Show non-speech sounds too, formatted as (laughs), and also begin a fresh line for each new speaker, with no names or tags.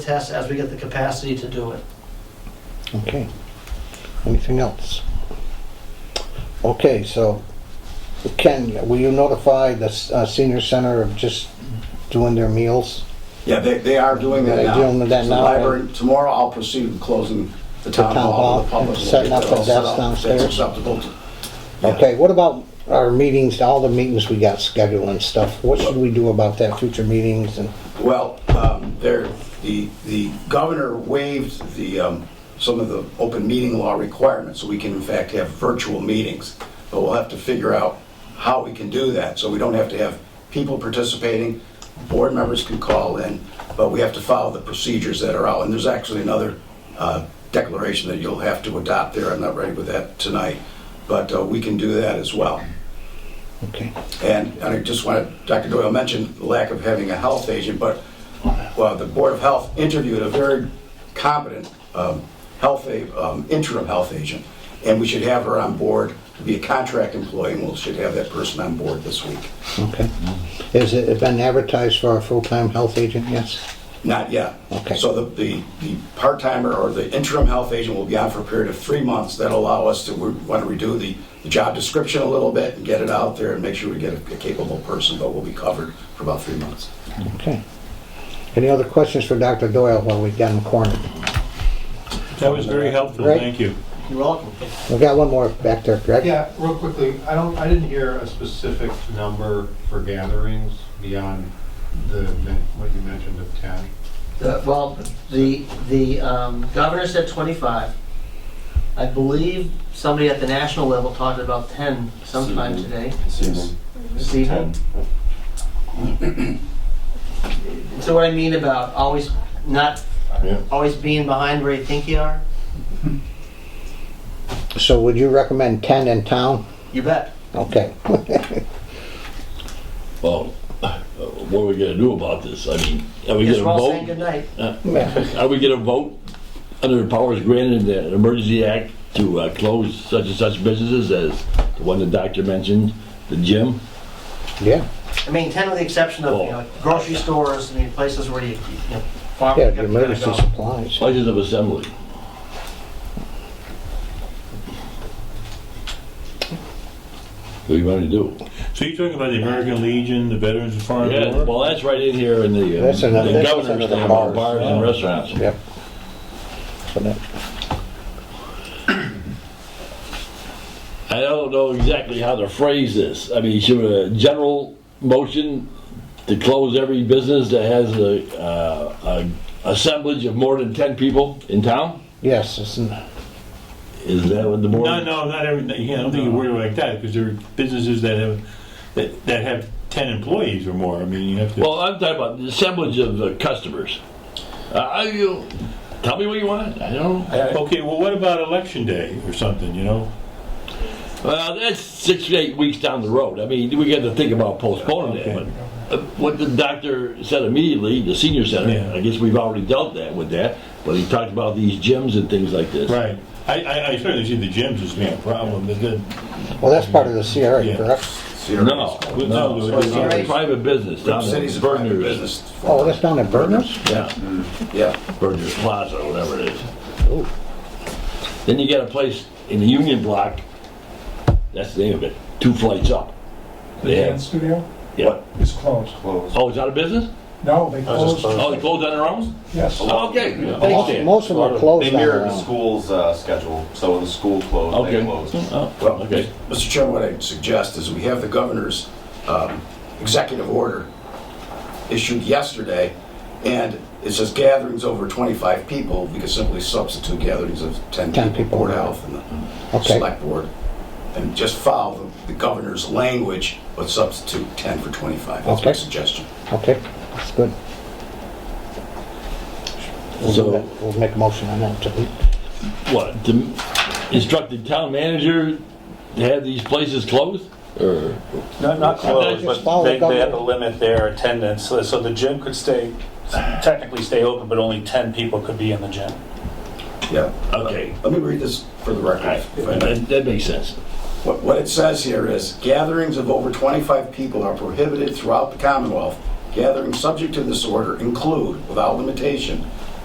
test as we get the capacity to do it.
Okay. Anything else? Okay, so Ken, will you notify the uh, senior center of just doing their meals?
Yeah, they, they are doing that
They're
now.
doing that
The
now,
library- Tomorrow, I'll proceed with closing the town
town
hall, the
hall,
public. will
setting
get
up
that
the
all set
desk
up.
downstairs.
That's acceptable. to- Yeah.
Okay, what about our meetings, all the meetings we got scheduled and stuff? What should we do about that, future meetings and,
Well, um, there, the, the governor waived the, um, some of the open meeting law requirements, so we can in fact have virtual meetings. But we'll have to figure out how we can do that, so we don't have to have people participating. Board members can call in, but we have to follow the procedures that are out. And there's actually another uh, declaration that you'll have to adopt there. I'm not ready with that tonight, but uh, we can do that as well.
okay?
And and I just wanted, Dr. Doyle mentioned the lack of having a health agent, but, well, the Board of Health interviewed a very competent um, health, a- um, interim health agent, and we should have her on board to be a contract employee, and we should have that person on board this week.
Okay. Has it been advertised for our full-time health agent? Yes?
Not yet.
Okay.
So the, the, the part-timer or the interim health agent will be on for a period of three months. That'll allow us to, we want to redo the, the job description a little bit and get it out there and make sure we get a a capable person, but we'll be covered for about three months.
Okay. Any other questions for Dr. Doyle while we got him cornered?
That was very helpful,
Right.
thank you.
You're welcome.
We got one more back there, correct?
Yeah, real quickly, I don't, I didn't hear a specific number for gatherings beyond the, men- what you mentioned of 10.
The- Well, the, the um, governor said 25. I believe somebody at the national level talked about 10 sometime
Mhm.
today,
Season.
this evening. So what I mean about always not,
Yeah.
always being behind where you think you are,
So would you recommend 10 in town?
you bet.
Okay.
Well, (sighs) uh, what are we gonna do about this? I mean, are we
Guess
gonna
we're all saying
vote?
goodnight.
Yeah.
(laughs) Are we gonna vote under the powers granted in the Emergency Act to uh, close such and such businesses as the one the doctor mentioned, the gym?
Yeah.
I mean, 10 with the exception of, you know, grocery stores, I mean, places where you, you know, farm,
Yeah,
you
the
gotta gotta
emergency
go.
supplies.
Places of assembly. What do you wanna do?
So you're talking about the American Legion, the Veterans of Foreign
Yeah,
War?
well, that's right in here in the, uh,
That's another-
the
that's
governor's
another
thing
bars.
about bars and restaurants.
Yep. So that-
I don't know exactly how to phrase this. I mean, should a general motion to close every business that has a, uh, a assemblage of more than ten people in town?
Yes, it's an-
Is that what the board?
No, no, not every, yeah, I don't think you word it like that, because there are businesses that have, that, that have ten employees or more, I mean, you have to.
Well, I'm talking about the assemblage of uh, customers. Uh, I, you, tell me what you want. I don't. know.
Okay, well, what about election day or something, you know?
Well, that's six to eight weeks down the road. I mean, we got to think about postponing
Okay.
that. But uh, what the doctor said immediately, the senior center,
Yeah.
I guess we've already dealt that with that. But he talked about these gyms and things like this.
Right. I, I, I certainly see the gyms as being a problem, but then,
Well, that's part of the CRA,
Yeah.
correct?
No, no,
No,
it's
it's-
a private business down there.
City's a private
Berners.
business.
Oh, that's down at Burners?
Yeah,
Yeah.
Berners Plaza, whatever it is.
Ooh.
Then you got a place in the Union Block. That's the name of it. Two flights up.
The
They have-
dance studio
Yeah.
is closed.
Closed.
Oh, it's out of business?
No, they closed,
Oh, they closed on their own?
yes.
Oh, Okay. I
Most
understand.
most of them are closed
They
down
mirror the
around.
school's uh, schedule, so when the school closed,
Okay.
they closed.
Oh,
Well,
Okay.
Mr. Chairman, what I suggest is we have the governor's um, executive order issued yesterday, and it says gatherings over 25 people, we could simply substitute gatherings of 10
10
people,
people.
Board of Health and the
Okay.
Select Board, and just follow the the governor's language, but substitute 10 for 25. That's my
Okay.
suggestion.
Okay, that's good. We'll do
So-
that. We'll make a motion on that too.
What, to instruct the town manager to have these places closed? Or,
Not, not
Just
closed,
follow
but
the
they, they had to
government.
limit their attendance, so so the gym could stay, technically stay open, but only 10 people could be in the gym.
Yeah.
okay.
Let me read this for the
All right,
record. if I may.
that that makes sense.
What, what it says here is gatherings of over 25 people are prohibited throughout the Commonwealth. Gatherings subject to this order include, without limitation,